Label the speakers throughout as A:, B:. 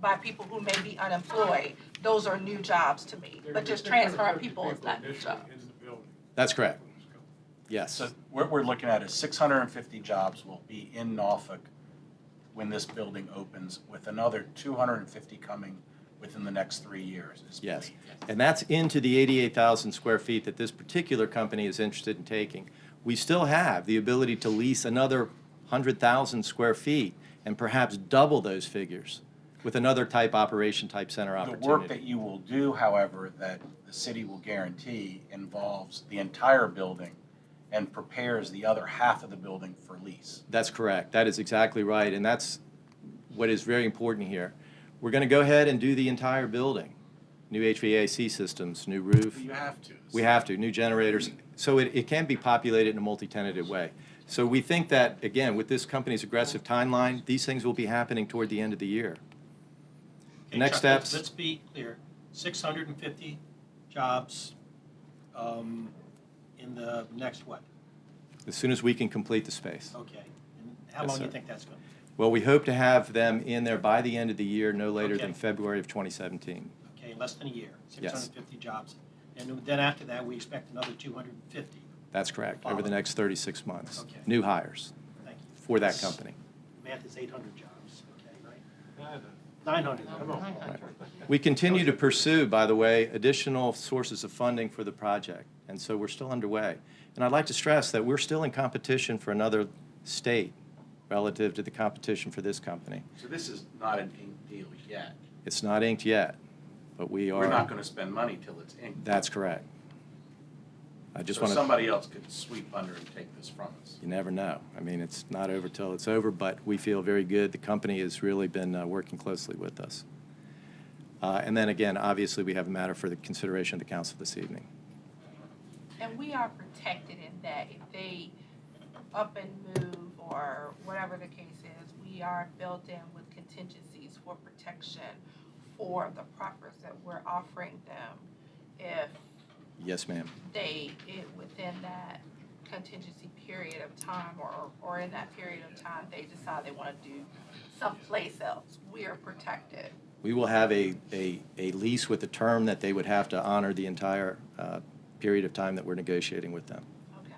A: by people who may be unemployed, those are new jobs to me. But just transferring people is not new job.
B: That's correct. Yes.
C: So what we're looking at is six hundred and fifty jobs will be in Norfolk when this building opens, with another two hundred and fifty coming within the next three years. is
B: Yes.
C: believed.
B: And that's into the 88,000 square feet that this particular company is interested in taking. We still have the ability to lease another 100,000 square feet and perhaps double those figures with another type operation, type center
C: The work that
B: opportunity.
C: you will do, however, that the city will guarantee involves the entire building and prepares the other half of the building for lease.
B: That's correct. That is exactly right. And that's what is very important here. We're going to go ahead and do the entire building. New HVAC systems, new roof.
C: You have to.
B: We have to, new generators. So it, it can be populated in a multi-tenanted way. So we think that, again, with this company's aggressive timeline, these things will be happening toward the end of the year.
D: Okay,
B: Next
D: Chuck, let's-
B: steps.
D: Let's be clear, six hundred and fifty jobs um, in the next what?
B: As soon as we can complete the space.
D: Okay, and how
B: Yes,
D: long do you
B: sir.
D: think that's going? to
B: Well, we hope to have them in there by the end of the year, no later than
D: Okay.
B: February of 2017.
D: Okay, less than a year, six
B: Yes.
D: hundred and fifty jobs. And then after that, we expect another two hundred and fifty,
B: That's correct, over the
D: Follow.
B: next 36 months.
D: Okay.
B: New hires
D: thank you.
B: for that company.
D: Math is eight hundred jobs, okay, right? Nine hundred.
C: Come on.
B: We continue to pursue, by the way, additional sources of funding for the project, and so we're still underway. And I'd like to stress that we're still in competition for another state relative to the competition for this company.
C: So this is not an inked deal yet.
B: It's not inked yet, but we
C: We're not
B: are,
C: gonna spend money till it's inked.
B: that's correct. I just
C: So
B: want to,
C: somebody else could sweep under and take this from us.
B: you never know. I mean, it's not over till it's over, but we feel very good. The company has really been uh, working closely with us. Uh, And then again, obviously, we have a matter for the consideration of the council this evening.
A: And we are protected in that if they up and move or whatever the case is, we are built in with contingencies for protection for the properties that we're offering them if
B: Yes, ma'am.
A: they, it- within that contingency period of time or, or in that period of time, they decide they want to do someplace else, we are protected.
B: We will have a, a, a lease with a term that they would have to honor the entire uh, period of time that we're negotiating with them.
A: Okay.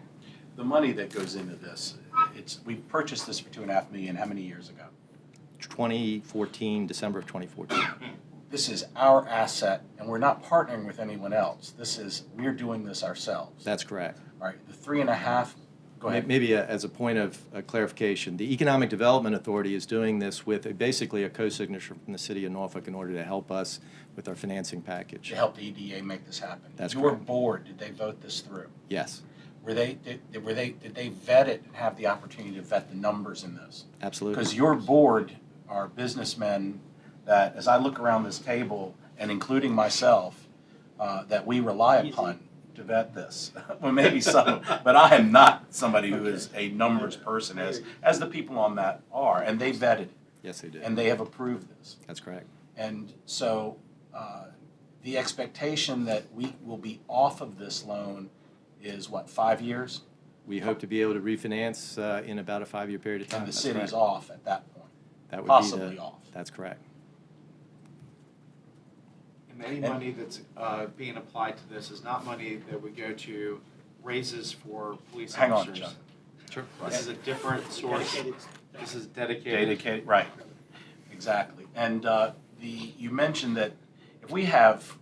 C: The money that goes into this, it's, we purchased this for two and a half million, how many years ago?
B: 2014, December of 2014.
C: This is our asset, and we're not partnering with anyone else. This is, we're doing this ourselves.
B: That's correct.
C: All right, the three and a half, go
B: May-
C: ahead.
B: Maybe uh, as a point of uh, clarification, the Economic Development Authority is doing this with a- basically a co-signature from the city of Norfolk in order to help us with our financing package.
C: To help the EDA make this happen.
B: That's
C: Your
B: correct.
C: board, did they vote this through?
B: Yes,
C: Were they, did, were they, did they vet it and have the opportunity to vet the numbers in this? Because
B: absolutely.
C: your board are businessmen that, as I look around this table, and including myself, uh, that we rely
D: Easy.
C: upon to vet this. Well, maybe some, but I am not somebody who is a numbers person, as, as the people on that are, and they vetted,
B: Yes, they did.
C: and they have approved this.
B: That's correct.
C: And so, uh, the expectation that we will be off of this loan is what, five years?
B: We hope to be able to refinance uh, in about a five-year period of time.
C: And the
B: That's
C: city's
B: correct.
C: off at that point,
B: That would be the-
C: possibly off.
B: That's correct.
E: And any
C: And-
E: money that's uh, being applied to this is not money that would go to raises for police
C: Hang on,
E: officers.
C: John.
B: Sure.
E: This is a different source.
D: Dedicated.
E: This is dedicated.
C: Dedicated, right, exactly. And uh, the, you mentioned that if we have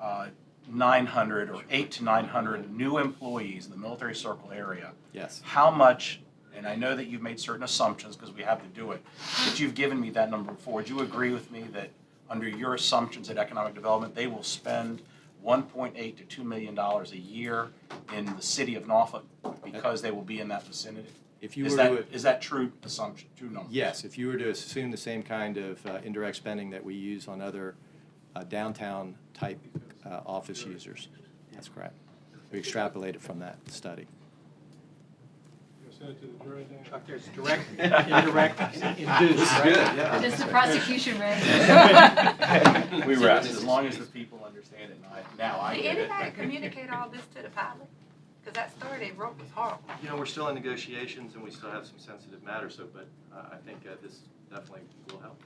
C: uh, 900 or 8 to 900 new employees in the military circle area,
B: Yes,
C: how much, and I know that you've made certain assumptions because we have to do it, but you've given me that number before. Do you agree with me that under your assumptions at economic development, they will spend 1.8 to 2 million dollars a year in the city of Norfolk because they will be in that vicinity?
B: if you were
C: Is
B: to.
C: that, is that true assumption, true number?
B: Yes, if you were to assume the same kind of uh, indirect spending that we use on other uh, downtown-type uh, office users. That's correct. We extrapolate it from that study.
D: Chuck, there's direct, indirect, and induced, right?
F: Does the prosecution
C: Yeah.
F: ran?
C: We rest, as long as the people understand it, and I, now I
A: Did
C: get it.
A: anybody communicate all this to the pilot? Because that story they wrote was horrible.
G: You know, we're still in negotiations and we still have some sensitive matters, so, but uh, I think uh, this definitely will help.